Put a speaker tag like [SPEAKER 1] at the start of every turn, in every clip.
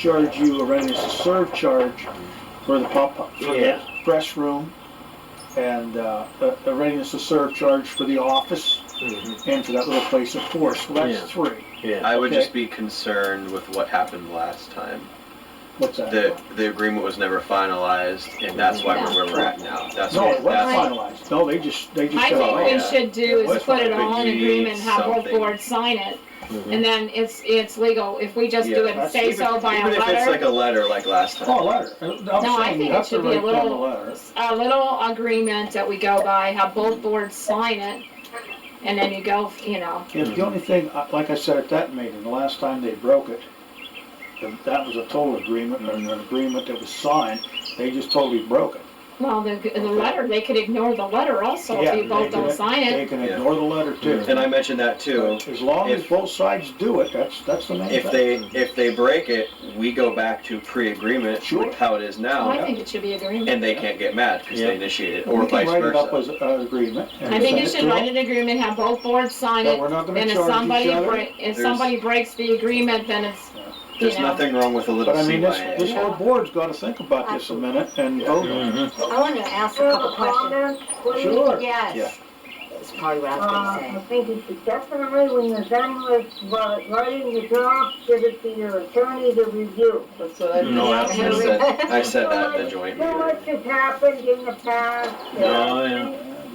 [SPEAKER 1] charge you a ready-to-serve charge for the pump, for the
[SPEAKER 2] Yeah.
[SPEAKER 1] press room, and uh, a a readiness-to-serve charge for the office and for that little place of force. Well,
[SPEAKER 2] Yeah.
[SPEAKER 1] that's three.
[SPEAKER 2] Mm-hmm. Yeah.
[SPEAKER 3] I would
[SPEAKER 1] Okay.
[SPEAKER 3] just be concerned with what happened last time.
[SPEAKER 1] What's that?
[SPEAKER 3] The the agreement was never finalized, and that's why we're where we're at now. That's
[SPEAKER 1] No,
[SPEAKER 3] what
[SPEAKER 1] it wasn't
[SPEAKER 3] that's-
[SPEAKER 1] finalized. No, they just, they just
[SPEAKER 4] I
[SPEAKER 1] said,
[SPEAKER 4] think we
[SPEAKER 1] oh,
[SPEAKER 3] yeah.
[SPEAKER 4] should do is
[SPEAKER 1] What's
[SPEAKER 4] put it
[SPEAKER 3] wrong?
[SPEAKER 4] all in
[SPEAKER 3] We need
[SPEAKER 4] agreement, have both
[SPEAKER 3] something.
[SPEAKER 4] boards sign it,
[SPEAKER 2] Mhm.
[SPEAKER 4] and then it's, it's legal. If we just
[SPEAKER 3] Yeah,
[SPEAKER 4] do it and
[SPEAKER 1] that's-
[SPEAKER 4] say so by a
[SPEAKER 3] Even if it's like
[SPEAKER 4] letter,
[SPEAKER 3] a letter like last time.
[SPEAKER 1] oh, a letter. I'm
[SPEAKER 4] No, I
[SPEAKER 1] saying
[SPEAKER 4] think
[SPEAKER 1] you
[SPEAKER 4] it
[SPEAKER 1] have to
[SPEAKER 4] should be a
[SPEAKER 1] write down the
[SPEAKER 4] little-
[SPEAKER 1] letter.
[SPEAKER 4] a little agreement that we go by, have both boards sign it, and then you go, you know,
[SPEAKER 1] If the only thing, uh, like I said at that meeting, the last time they broke it, th- that was a total agreement, and an agreement that was signed, they just totally broke it.
[SPEAKER 4] well, the, the letter, they could ignore the letter also
[SPEAKER 1] Yeah,
[SPEAKER 4] if you
[SPEAKER 1] they
[SPEAKER 4] both
[SPEAKER 1] can-
[SPEAKER 4] don't sign
[SPEAKER 1] They
[SPEAKER 4] it.
[SPEAKER 1] can
[SPEAKER 3] Yeah.
[SPEAKER 1] ignore the letter too.
[SPEAKER 3] And I mentioned that too.
[SPEAKER 1] As long as
[SPEAKER 3] if-
[SPEAKER 1] both sides do it, that's, that's the main thing.
[SPEAKER 3] If they if they break it, we go back to pre-agreement
[SPEAKER 1] Sure.
[SPEAKER 3] how it is
[SPEAKER 4] Well,
[SPEAKER 3] now,
[SPEAKER 4] I think it should be agreement.
[SPEAKER 3] and they can't get mad because
[SPEAKER 2] Yeah.
[SPEAKER 3] they initiated it,
[SPEAKER 1] We
[SPEAKER 3] or
[SPEAKER 1] can
[SPEAKER 3] vice
[SPEAKER 1] write it up as
[SPEAKER 3] versa.
[SPEAKER 1] an agreement. and
[SPEAKER 4] I think you
[SPEAKER 1] send
[SPEAKER 4] should
[SPEAKER 1] to
[SPEAKER 4] write
[SPEAKER 1] them,
[SPEAKER 4] an agreement, have both boards sign
[SPEAKER 1] That
[SPEAKER 4] it,
[SPEAKER 1] we're not gonna
[SPEAKER 4] and if
[SPEAKER 1] charge
[SPEAKER 4] somebody,
[SPEAKER 1] each other.
[SPEAKER 4] break- if
[SPEAKER 3] There's-
[SPEAKER 4] somebody breaks the agreement, then it's, you
[SPEAKER 3] There's
[SPEAKER 4] know.
[SPEAKER 3] nothing wrong with a little
[SPEAKER 1] But I mean, this,
[SPEAKER 3] CYA.
[SPEAKER 1] this whole board's gotta think about this a minute and vote on it.
[SPEAKER 2] Mm-hmm.
[SPEAKER 5] I wanted to ask a couple questions.
[SPEAKER 1] Sure.
[SPEAKER 3] Yeah.
[SPEAKER 5] Yes. That's probably what I was
[SPEAKER 6] Uh, I
[SPEAKER 5] gonna
[SPEAKER 6] think you should definitely, when you're done with uh, writing the draft, give it to your attorney to review.
[SPEAKER 5] say. what I
[SPEAKER 2] No,
[SPEAKER 3] I said, I said that in the joint
[SPEAKER 6] So much
[SPEAKER 3] meeting.
[SPEAKER 6] has happened in the past.
[SPEAKER 2] Oh, yeah.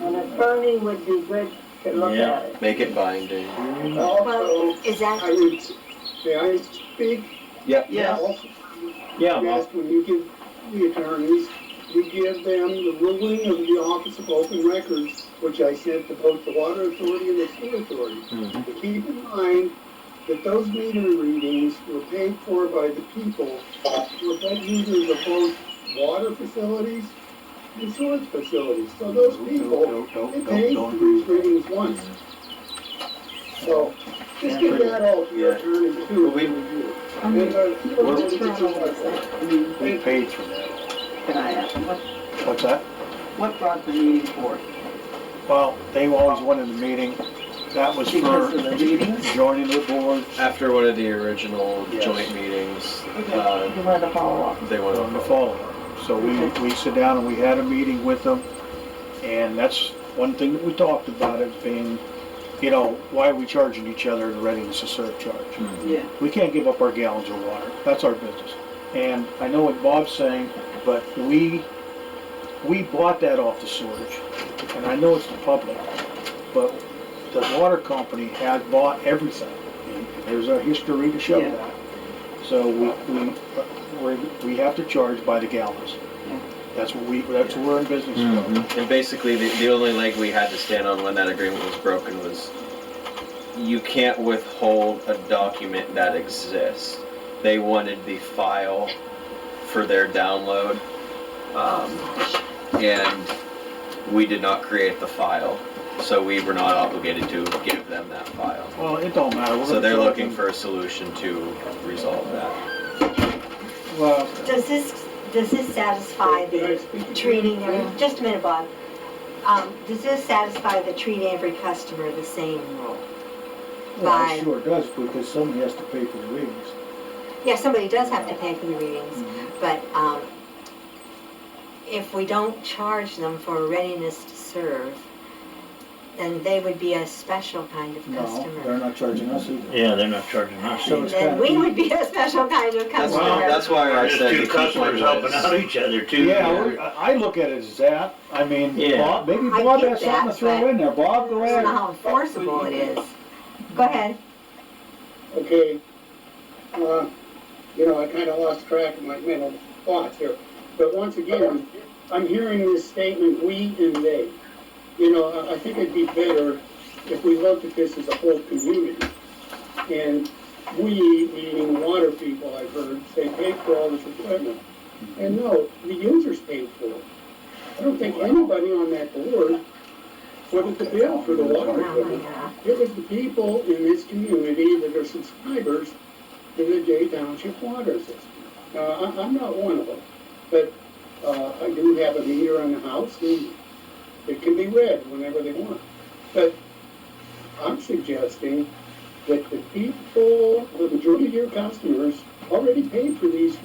[SPEAKER 6] An attorney would be good to look
[SPEAKER 2] Yeah.
[SPEAKER 6] at it.
[SPEAKER 3] Make it binding.
[SPEAKER 5] Well,
[SPEAKER 7] Also,
[SPEAKER 5] is that,
[SPEAKER 7] I would, may I speak?
[SPEAKER 3] Yep.
[SPEAKER 2] Yeah.
[SPEAKER 7] Also,
[SPEAKER 2] Yeah, well,
[SPEAKER 7] Yes, when you give the attorneys, you give them the ruling of the Office of Open Records, which I sent to both the Water Authority and the Sewer Authority.
[SPEAKER 2] Mhm.
[SPEAKER 7] But keep in mind that those meter readings were paid for by the people, who were bed users of both water facilities and sewage facilities. So those people
[SPEAKER 1] Don't- don't-
[SPEAKER 7] it
[SPEAKER 1] don't-
[SPEAKER 7] pays
[SPEAKER 1] don't
[SPEAKER 7] for
[SPEAKER 1] agree
[SPEAKER 7] these
[SPEAKER 1] with that.
[SPEAKER 7] readings once. So, just give that all to your attorney too.
[SPEAKER 3] We-
[SPEAKER 7] And, uh,
[SPEAKER 4] What's wrong with
[SPEAKER 7] I mean,
[SPEAKER 1] They
[SPEAKER 7] it-
[SPEAKER 1] paid for that.
[SPEAKER 8] Can I ask, what,
[SPEAKER 1] What's that?
[SPEAKER 8] what brought the meeting forth?
[SPEAKER 1] Well, they always wanted the meeting. That was
[SPEAKER 8] Because of the
[SPEAKER 1] for
[SPEAKER 8] meetings?
[SPEAKER 1] joining the board.
[SPEAKER 3] After one of the original
[SPEAKER 1] Yes.
[SPEAKER 3] joint meetings,
[SPEAKER 8] Okay,
[SPEAKER 3] uh,
[SPEAKER 8] you wanted to follow up.
[SPEAKER 3] they went
[SPEAKER 1] on the
[SPEAKER 3] on.
[SPEAKER 1] follow up. So we, we sit down and we had a meeting with them, and that's one thing that we talked about, it being, you know, why are we charging each other in a readiness to serve charge?
[SPEAKER 8] Yeah,
[SPEAKER 1] We can't give up our gallons of water, that's our business. And I know what Bob's saying, but we, we bought that off the sewage, and I know it's the public, but the water company had bought everything. And There's a history to show
[SPEAKER 8] Yeah.
[SPEAKER 1] that. So we, we, we're- we have to charge by the gallons.
[SPEAKER 8] Yeah.
[SPEAKER 1] That's what we, that's what we're in business for.
[SPEAKER 3] And basically, the, the only leg we had to stand on when that agreement was broken was you can't withhold a document that exists. They wanted the file for their download, um, and we did not create the file, so we were not obligated to give them that file.
[SPEAKER 1] Well, it don't matter. We're
[SPEAKER 3] So
[SPEAKER 1] gonna
[SPEAKER 3] they're
[SPEAKER 1] charge
[SPEAKER 3] looking
[SPEAKER 1] them.
[SPEAKER 3] for a solution to resolve that.
[SPEAKER 1] Well,
[SPEAKER 5] does this, does this satisfy
[SPEAKER 7] Can I
[SPEAKER 5] the
[SPEAKER 7] speak?
[SPEAKER 5] treating, every- just a minute, Bob. Um, does this satisfy the treat every customer the same rule?
[SPEAKER 1] well, it
[SPEAKER 5] By-
[SPEAKER 1] sure does, because somebody has to pay for the readings.
[SPEAKER 5] Yeah, somebody does have to pay for the readings, but, um, if we don't charge them for readiness to serve, then they would be a special kind of
[SPEAKER 1] No, they're
[SPEAKER 5] customer.
[SPEAKER 1] not charging us either.
[SPEAKER 2] yeah, they're not charging us.
[SPEAKER 1] So it's
[SPEAKER 5] Then
[SPEAKER 1] kind
[SPEAKER 5] we
[SPEAKER 1] of,
[SPEAKER 5] would be a special kind of
[SPEAKER 3] That's,
[SPEAKER 5] customer.
[SPEAKER 3] that's why I
[SPEAKER 2] There's
[SPEAKER 3] said.
[SPEAKER 2] two
[SPEAKER 3] to keep my
[SPEAKER 2] customers helping
[SPEAKER 3] place.
[SPEAKER 2] out each other too.
[SPEAKER 1] yeah, we're- I I look at it as that. I mean,
[SPEAKER 2] Yeah.
[SPEAKER 1] Bob, maybe
[SPEAKER 5] I
[SPEAKER 1] Bob
[SPEAKER 5] get
[SPEAKER 1] has something to
[SPEAKER 5] that,
[SPEAKER 1] throw
[SPEAKER 5] but-
[SPEAKER 1] in there. Bob,
[SPEAKER 5] I
[SPEAKER 1] go
[SPEAKER 5] don't
[SPEAKER 1] ahead.
[SPEAKER 5] know how enforceable it is. Go ahead.
[SPEAKER 7] Okay, uh, you know, I kinda lost track of my mental thoughts here, but once again, I'm hearing this statement, we and they. You know, I, I think it'd be better if we looked at this as a whole community. And we, meaning water people, I've heard, say pay for all this equipment. And no, the users paid for it. I don't think anybody on that board footed the bill for the water
[SPEAKER 5] Oh, my
[SPEAKER 7] equipment.
[SPEAKER 5] God.
[SPEAKER 7] It was the people in this community that are subscribers to the Jay Township water system. Now, I, I'm not one of them, but, uh, I do have a meter in the house and it can be read whenever they want. But I'm suggesting that the people, the majority of your customers already paid for these